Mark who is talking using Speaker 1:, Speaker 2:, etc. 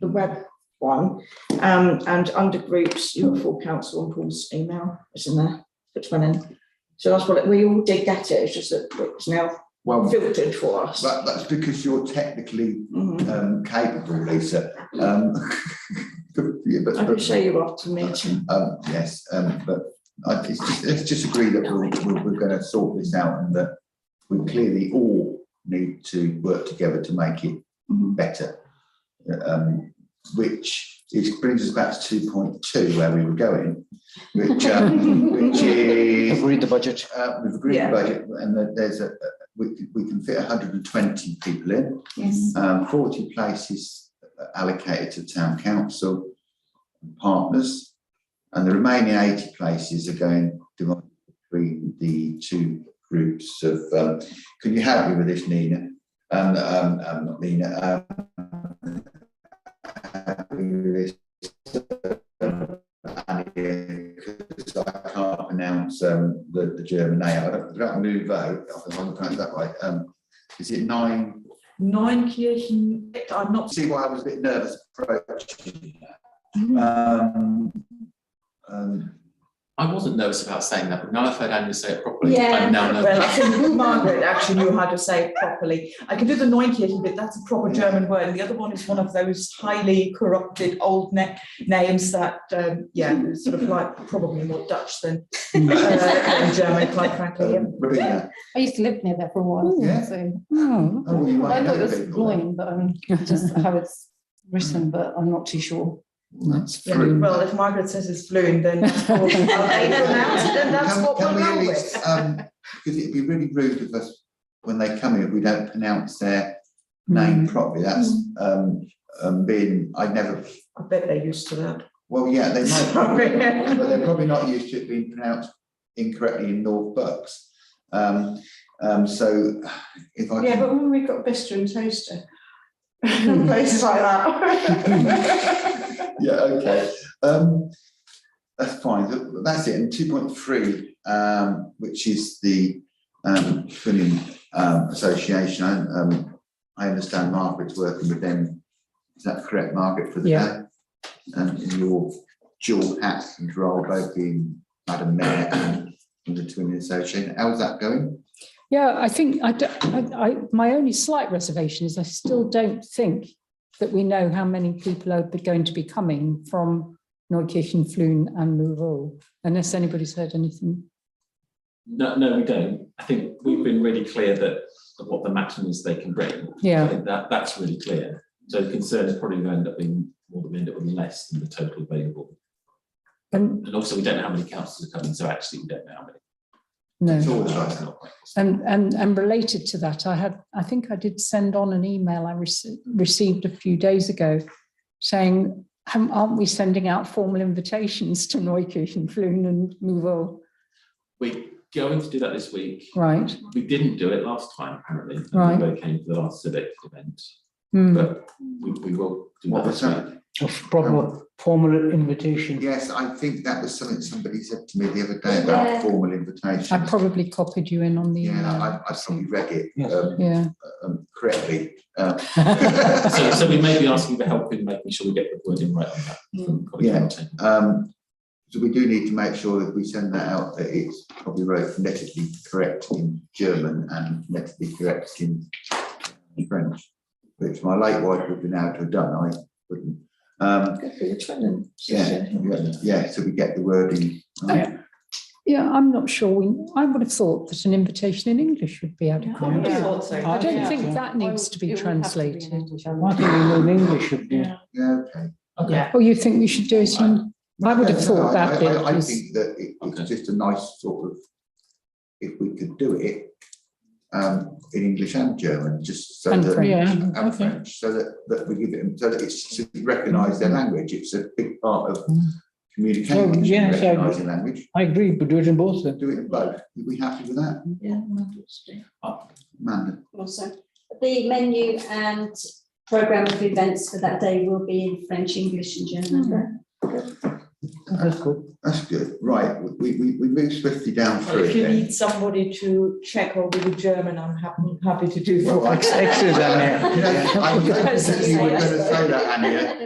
Speaker 1: web one. Um, and under groups, you have full council and Paul's email is in there, which went in. So that's what, it- we all did get it, it's just that it's now
Speaker 2: Well,
Speaker 1: filtered for us.
Speaker 2: that, that's because you're technically
Speaker 1: Mhm.
Speaker 2: um, capable, Lisa. Um, yeah, but,
Speaker 1: I could
Speaker 2: but
Speaker 1: show you after the meeting.
Speaker 2: um, yes, um, but I, it's just, let's just agree that we're, we're, we're going to sort this out and that we clearly all need to work together to make it
Speaker 1: Mhm.
Speaker 2: better. Um, which is, brings us back to two point two where we were going, which, um, which is
Speaker 3: Agreed the budget.
Speaker 2: uh, we've agreed
Speaker 1: Yeah.
Speaker 2: the budget and that there's a, a- we, we can fit hundred and twenty people in.
Speaker 1: Yes.
Speaker 2: Um, forty places allocated to town council and partners. And the remaining eighty places are going divided between the two groups of, um, can you help me with this, Nina? Um, um, um, not Nina, um. help me with this, um, Annie, 'cause I can't pronounce, um, the, the German name. I don't, I don't Nouveau, I don't pronounce it that way. Um, is it nine?
Speaker 4: Neunkirchen, I'm not
Speaker 2: see why I was a bit nervous approaching that. Um, um,
Speaker 5: I wasn't nervous about saying that, but now I've heard Andrew say it properly,
Speaker 4: Yeah,
Speaker 5: I'm now
Speaker 4: well, I
Speaker 5: nervous.
Speaker 4: think Margaret actually knew how to say it properly. I can do the Neunkirchen bit, that's a proper German word, and the other one is one of those highly corrupted old ne- names that, um, yeah, sort of like probably more Dutch than uh,
Speaker 2: Mm.
Speaker 4: than German, quite frankly. yeah.
Speaker 2: um, Rowena,
Speaker 6: I used to live near there for a while.
Speaker 2: Yeah.
Speaker 6: So
Speaker 7: Oh,
Speaker 2: oh, well, you
Speaker 6: I
Speaker 2: might
Speaker 6: thought it
Speaker 2: know
Speaker 6: was
Speaker 2: people.
Speaker 6: annoying, but um, just how it's written, but I'm not too sure.
Speaker 2: That's
Speaker 4: Yeah,
Speaker 2: true.
Speaker 4: Well, if Margaret says it's fluent, then that's probably-
Speaker 7: Okay,
Speaker 4: then that's- then that's
Speaker 2: Can-
Speaker 4: what
Speaker 2: can
Speaker 4: we'll
Speaker 2: we at
Speaker 4: go
Speaker 2: least,
Speaker 4: with.
Speaker 2: um, Because it'd be really rude of us, when they come here, if we don't pronounce their
Speaker 6: Mm-hmm.
Speaker 2: name properly, that's, um, um, being, I'd never,
Speaker 4: I bet they're used to that.
Speaker 2: well, yeah, they might.
Speaker 4: Sorry.
Speaker 2: But they're probably not used to it being pronounced incorrectly in North Bucks. Um, um, so if I.
Speaker 8: Yeah, but when we got Bister and Toaster, places like that.
Speaker 2: Yeah, okay, um, that's fine, Th- that's it, and two point three, um, which is the, um, filling, um, association, I, um, I understand Margaret's working with them, is that correct, Margaret, for the day? And in your dual hat and role, both being Madam Mayor and the Twinning Association, how's that going?
Speaker 7: Yeah, I think I, do- I, I- my only slight reservation is I still don't think that we know how many people are going to be coming from Neukirchen, Flun and Mouveau, unless anybody's heard anything.
Speaker 5: No, no, we don't. I think we've been really clear that of what the maximum is they can bring. I
Speaker 7: Yeah,
Speaker 5: think that, that's really clear. So the concern is probably going to end up being, more that we end up with less than the total available.
Speaker 7: and
Speaker 5: And also, we don't know how many councils are coming, so actually, we don't know how many.
Speaker 7: no.
Speaker 2: It's always nice.
Speaker 5: It's not quite possible.
Speaker 7: And, and, and related to that, I had, I think I did send on an email I rece- received a few days ago saying, "Haven't- aren't we sending out formal invitations to Neukirchen, Flun and Mouveau?
Speaker 5: We're going to do that this week.
Speaker 7: Right,
Speaker 5: We didn't do it last time, apparently. and
Speaker 7: Mm. Right.
Speaker 5: They came to the last civic event,
Speaker 7: Hmm.
Speaker 5: but we, we will do
Speaker 2: What
Speaker 5: that
Speaker 2: was
Speaker 5: this
Speaker 2: that?
Speaker 5: week.
Speaker 3: Proper formal invitation.
Speaker 2: Yes, I think that was something somebody said to me the other day about formal invitations.
Speaker 7: I probably copied you in on the
Speaker 2: Yeah,
Speaker 7: email.
Speaker 2: I, I probably read it,
Speaker 3: Yes.
Speaker 2: um,
Speaker 7: Yeah,
Speaker 2: um, correctly. Um,
Speaker 5: So, so we may be asking for help in making sure we get the wording right on that from colleague
Speaker 2: Yeah.
Speaker 5: Martin.
Speaker 2: um, so we do need to make sure that we send that out, that it's probably wrote phonetically correct in German and phonetically correct in French, which my late wife would have been able to have done, I wouldn't. Um,
Speaker 1: Good for your training.
Speaker 2: yeah, yeah, yeah, so we get the wording. um,
Speaker 7: yeah, I'm not sure. We, I would have thought that an invitation in English would be
Speaker 4: I
Speaker 7: adequate.
Speaker 4: would have thought so.
Speaker 7: I don't
Speaker 6: Yeah.
Speaker 7: think that needs to be
Speaker 6: It would have to be in
Speaker 7: translated.
Speaker 6: English,
Speaker 3: I
Speaker 6: otherwise-
Speaker 3: think we know English should be.
Speaker 2: Yeah, okay.
Speaker 5: Okay.
Speaker 4: Yeah,
Speaker 7: Or Oh, you think we should do it in, I would have
Speaker 2: Yeah,
Speaker 7: thought
Speaker 2: no, I-
Speaker 7: that bit
Speaker 2: I, I
Speaker 7: was-
Speaker 2: think that it-
Speaker 5: Okay.
Speaker 2: it's just a nice sort of, if we could do it, um, in English and German, just so
Speaker 7: And
Speaker 2: that.
Speaker 7: French. Yeah,
Speaker 2: and French, so that, that we give it, so that it's recognised their language, it's a big part of
Speaker 7: Mm. Oh,
Speaker 2: communication,
Speaker 3: Well, yes, I agree.
Speaker 2: recognising language,
Speaker 3: I agree, but do it in both then.
Speaker 2: do it in both, are we happy with that,
Speaker 1: Yeah, Mandel's doing.
Speaker 2: Amanda?
Speaker 8: Also,
Speaker 9: The menu and programme of events for that day will be in French, English and German.
Speaker 3: That's good.
Speaker 2: That's good, right, we, we, we move swiftly down
Speaker 4: Well,
Speaker 2: through
Speaker 4: if
Speaker 2: it
Speaker 4: you
Speaker 2: then.
Speaker 4: need somebody to check over the German, I'm happy, happy to do that.
Speaker 2: Well, I-
Speaker 3: Excellent, Anne.
Speaker 2: You know, I I didn't think you were going to say that, Annie,